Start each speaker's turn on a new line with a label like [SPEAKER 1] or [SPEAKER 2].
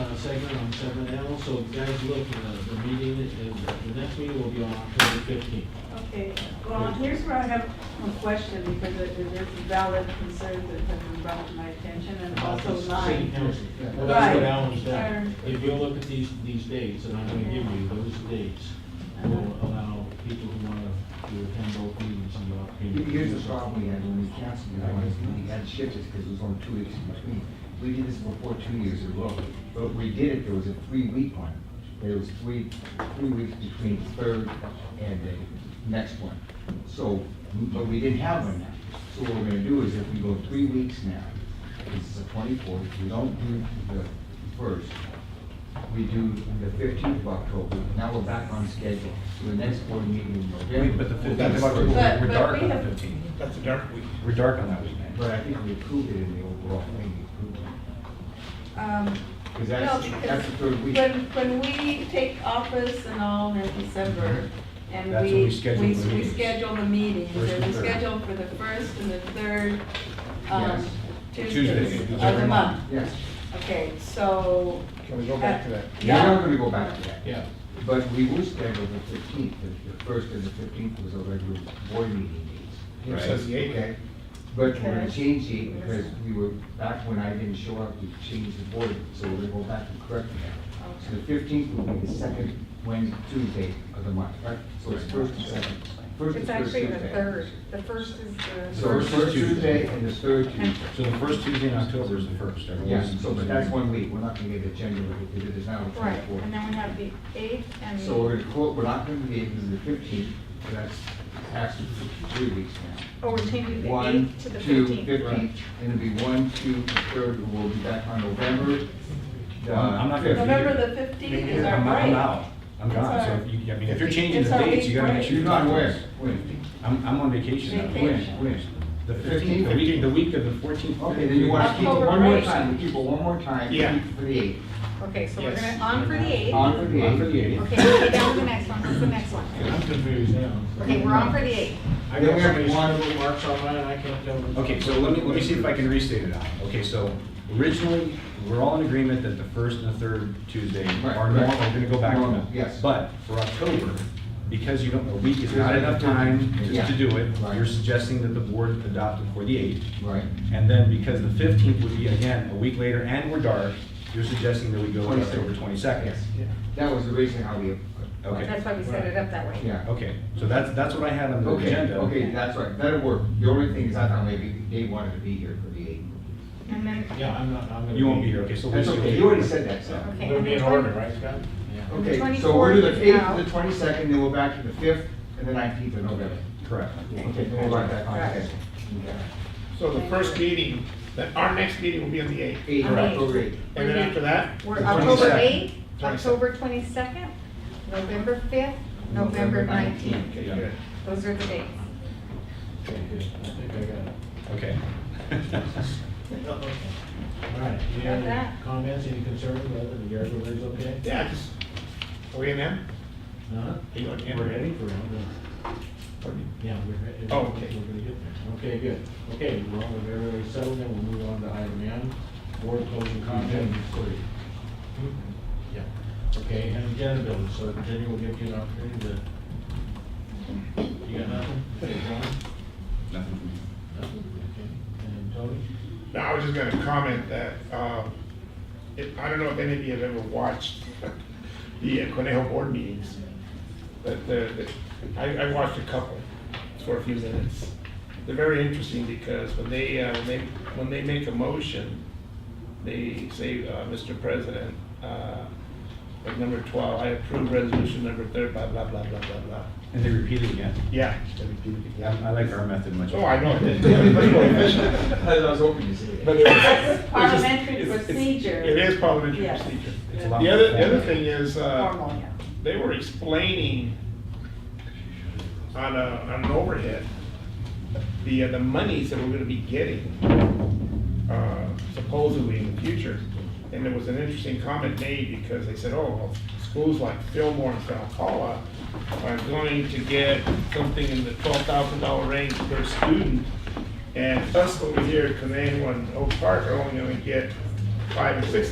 [SPEAKER 1] uh, seven L, so guys, look, uh, the meeting, is- uh, the next meeting will be on October fifteenth.
[SPEAKER 2] Okay, well, here's where I have a question, because it it is valid concerns that have been brought to my attention, and also
[SPEAKER 1] City
[SPEAKER 2] mine.
[SPEAKER 1] council.
[SPEAKER 3] Yeah.
[SPEAKER 1] Well, that's what
[SPEAKER 2] Right.
[SPEAKER 1] Alan's done.
[SPEAKER 2] Sure.
[SPEAKER 1] If you look at these, these dates, and I'm gonna give you those dates,
[SPEAKER 2] Uh-huh.
[SPEAKER 1] will allow people who wanna do attend both meetings and the opportunity. to do
[SPEAKER 3] Here's the
[SPEAKER 1] so.
[SPEAKER 3] problem we had when we canceled the last meeting, we had to shift it because it was only two weeks in between. We did this before two years ago, but when we did it, there was a three-week one. There was three, three weeks between the third and the next one. So, but we didn't have one now. So what we're gonna do is if we go three weeks now, this is the twenty-fourth, we don't do the first, we do the fifteenth of October, now we're back on schedule. So the next board meeting in November.
[SPEAKER 4] But the
[SPEAKER 3] will be the
[SPEAKER 4] 15th is
[SPEAKER 3] first.
[SPEAKER 2] But-
[SPEAKER 4] we're
[SPEAKER 2] but
[SPEAKER 4] dark
[SPEAKER 2] we
[SPEAKER 4] on the
[SPEAKER 2] have-
[SPEAKER 4] 15th.
[SPEAKER 5] That's a dark week.
[SPEAKER 4] We're dark on that weekend.
[SPEAKER 3] But I think we approved it in the overall thing, we approved it.
[SPEAKER 2] Um,
[SPEAKER 3] Because
[SPEAKER 2] No,
[SPEAKER 3] that's, that's the
[SPEAKER 2] because
[SPEAKER 3] third week.
[SPEAKER 2] when, when we take office and all in December, and
[SPEAKER 4] That's
[SPEAKER 2] we,
[SPEAKER 4] when
[SPEAKER 2] we,
[SPEAKER 4] we schedule the
[SPEAKER 2] we
[SPEAKER 4] meetings.
[SPEAKER 2] schedule the meetings,
[SPEAKER 4] First
[SPEAKER 2] and we
[SPEAKER 4] and third.
[SPEAKER 2] schedule for the first and the third, um,
[SPEAKER 3] Yes.
[SPEAKER 2] Tuesdays
[SPEAKER 4] Tuesdays,
[SPEAKER 2] of the
[SPEAKER 4] every
[SPEAKER 2] month.
[SPEAKER 4] month.
[SPEAKER 3] Yes,
[SPEAKER 2] Okay, so,
[SPEAKER 5] Can we go
[SPEAKER 2] back to that?
[SPEAKER 3] we're
[SPEAKER 2] Yeah.
[SPEAKER 3] not gonna go back to that.
[SPEAKER 1] Yeah,
[SPEAKER 3] But we were scheduled the fifteenth, the, the first and the fifteenth was a regular board meeting days.
[SPEAKER 5] It says the eighth.
[SPEAKER 3] Okay, but we're gonna
[SPEAKER 2] Okay.
[SPEAKER 3] change the, eighth because we were, back when I didn't show up, we changed the board, so we're gonna go back and correct that. So the fifteenth will be the second Wednesday, Tuesday of the month, right? So it's first and second. First
[SPEAKER 6] It's
[SPEAKER 3] is first
[SPEAKER 6] actually the
[SPEAKER 3] Tuesday.
[SPEAKER 6] third. The first is the.
[SPEAKER 3] So it's first Tuesday and the third Tuesday.
[SPEAKER 4] So the first Tuesday in October is the first.
[SPEAKER 3] Yeah,
[SPEAKER 4] everyone's-
[SPEAKER 3] so, but that's one week, we're not gonna get a January, because it is now the
[SPEAKER 6] Right,
[SPEAKER 3] twenty-fourth.
[SPEAKER 6] and then we have the eighth and.
[SPEAKER 3] So we're gonna quote, we're not gonna be able to do the fifteenth, but that's actually three weeks now.
[SPEAKER 6] Oh, we're changing the
[SPEAKER 3] One,
[SPEAKER 6] eighth to the
[SPEAKER 3] two,
[SPEAKER 6] fifteenth.
[SPEAKER 3] fifteenth, and it'll be one, two, the third, and we'll be back on November. uh, the
[SPEAKER 4] I'm- I'm not gonna
[SPEAKER 3] 5th.
[SPEAKER 2] November the fifteenth is our
[SPEAKER 4] I'm I'm
[SPEAKER 2] break.
[SPEAKER 4] out. I'm gone. So if you, I mean, if you're changing
[SPEAKER 2] It's
[SPEAKER 4] the
[SPEAKER 2] our
[SPEAKER 4] dates, you gotta
[SPEAKER 2] big
[SPEAKER 4] make sure.
[SPEAKER 3] You're
[SPEAKER 4] you
[SPEAKER 3] not
[SPEAKER 4] talk to
[SPEAKER 3] aware,
[SPEAKER 4] us.
[SPEAKER 3] when,
[SPEAKER 4] I'm, I'm on vacation. now.
[SPEAKER 3] when,
[SPEAKER 2] Vacation.
[SPEAKER 3] when?
[SPEAKER 4] The fifteenth, the week, the week of the fourteenth.
[SPEAKER 3] Okay, then you wanna keep it one
[SPEAKER 2] October
[SPEAKER 3] more
[SPEAKER 2] break.
[SPEAKER 3] time, we keep it one more time,
[SPEAKER 5] Yeah.
[SPEAKER 3] keep it for the eighth,
[SPEAKER 6] Okay, so we're
[SPEAKER 5] Yes.
[SPEAKER 6] gonna, on for the eighth.
[SPEAKER 3] on for the
[SPEAKER 4] On for the
[SPEAKER 3] eighth.
[SPEAKER 4] eighth.
[SPEAKER 6] Okay, okay, down to the next one, what's the next one?
[SPEAKER 1] I'm confused now.
[SPEAKER 6] Okay, we're on for the eighth.
[SPEAKER 1] I got somebody's little marks on mine, I can't tell. which-
[SPEAKER 4] Okay, so let me, let me see if I can restate it out. Okay, so originally, we're all in agreement that the first and the third Tuesday
[SPEAKER 3] Right,
[SPEAKER 4] are normal,
[SPEAKER 3] right.
[SPEAKER 4] we're gonna go back to
[SPEAKER 3] Normal,
[SPEAKER 4] that.
[SPEAKER 3] yes.
[SPEAKER 4] But for October, because you don't, a week is not enough time
[SPEAKER 3] Yeah.
[SPEAKER 4] just to do it,
[SPEAKER 3] Right.
[SPEAKER 4] you're suggesting that the board adopt it for the eighth.
[SPEAKER 3] Right,
[SPEAKER 4] And then because the fifteenth would be again a week later and we're dark, you're suggesting that we go with October twenty-second.
[SPEAKER 3] yes, that was the reason how we.
[SPEAKER 4] Okay,
[SPEAKER 6] That's why we set it up that way.
[SPEAKER 3] Yeah.
[SPEAKER 4] okay, so that's, that's what I had on the
[SPEAKER 3] Okay,
[SPEAKER 4] agenda.
[SPEAKER 3] okay, that's right, that'll work. The only thing is I thought maybe they wanted to be here for the eighth.
[SPEAKER 6] And then,
[SPEAKER 1] Yeah, I'm not, I'm gonna.
[SPEAKER 4] You won't be here, okay, so.
[SPEAKER 3] That's
[SPEAKER 4] Lucy will
[SPEAKER 3] okay,
[SPEAKER 4] be
[SPEAKER 3] you already
[SPEAKER 4] here.
[SPEAKER 3] said that, so.
[SPEAKER 6] okay.
[SPEAKER 5] It'll
[SPEAKER 6] and
[SPEAKER 5] be in
[SPEAKER 6] the
[SPEAKER 5] order,
[SPEAKER 6] 20
[SPEAKER 5] right, Scott?
[SPEAKER 1] Yeah.
[SPEAKER 3] Okay, so we're to the
[SPEAKER 6] 24th
[SPEAKER 3] eighth,
[SPEAKER 6] now.
[SPEAKER 3] the twenty-second, then we're back to the fifth, and the nineteenth of November.
[SPEAKER 4] Correct.
[SPEAKER 3] Okay, then we're back on
[SPEAKER 6] Right.
[SPEAKER 3] schedule.
[SPEAKER 5] So the first meeting, that, our next meeting will be on the eighth.
[SPEAKER 3] Eight,
[SPEAKER 6] Correct.
[SPEAKER 3] October eighth.
[SPEAKER 5] And then
[SPEAKER 6] Oh,
[SPEAKER 5] after that?
[SPEAKER 6] We're
[SPEAKER 5] the
[SPEAKER 6] October
[SPEAKER 5] 22nd.
[SPEAKER 6] eighth, October twenty-second, November fifth, November nineteenth.
[SPEAKER 5] Okay, good.
[SPEAKER 6] Those are the dates.
[SPEAKER 1] Okay, good. I think I got it.
[SPEAKER 4] Okay.
[SPEAKER 1] All right, any
[SPEAKER 6] Got
[SPEAKER 1] other
[SPEAKER 6] that.
[SPEAKER 1] comments, any concerns, whether the yard is okay?
[SPEAKER 5] Yeah, just, oh, are we in them?
[SPEAKER 1] Uh-huh.
[SPEAKER 5] You okay?
[SPEAKER 1] We're heading for round one. Yeah, we're heading.
[SPEAKER 5] Oh, okay.
[SPEAKER 1] We're gonna get there. Okay, good. Okay, we're all very, very settled, then we'll move on to item N, board closing comment. Yeah, okay, and agenda building, so Jenny will give you an opportunity to. You got nothing? Okay, John?
[SPEAKER 4] Nothing from me.
[SPEAKER 1] Nothing? Okay. And Tony?
[SPEAKER 5] No, I was just gonna comment that, um, if, I don't know if any of you have ever watched the uh, Conejo board meetings. But the, the- I, I watched a couple for a few minutes. They're very interesting because when they, uh, when they, when they make a motion, they say, uh, Mr. President, uh, like number twelve, I approve resolution number third, blah, blah, blah, blah, blah, blah.
[SPEAKER 4] And they repeat it again.
[SPEAKER 5] Yeah.
[SPEAKER 4] I I like our method much.
[SPEAKER 5] Oh, I know.
[SPEAKER 3] Everybody's more efficient. I was hoping to see it.
[SPEAKER 5] But it was-
[SPEAKER 2] This is parliamentary
[SPEAKER 5] it's- it's-
[SPEAKER 2] procedure.
[SPEAKER 5] It is parliamentary
[SPEAKER 2] Yes.
[SPEAKER 5] procedure.
[SPEAKER 4] It's a
[SPEAKER 2] Yeah.
[SPEAKER 4] lot
[SPEAKER 5] The other, the
[SPEAKER 4] more
[SPEAKER 5] other thing is, uh,
[SPEAKER 2] Formal, yeah.
[SPEAKER 5] they were explaining on a, on an overhead, the, uh, the monies that we're gonna be getting, uh, supposedly in the future. And there was an interesting comment made because they said, oh, well, schools like Fillmore and Falcoa are going to get something in the twelve thousand dollar range per student. And us over here, Command One, Oak Park are only gonna get five or six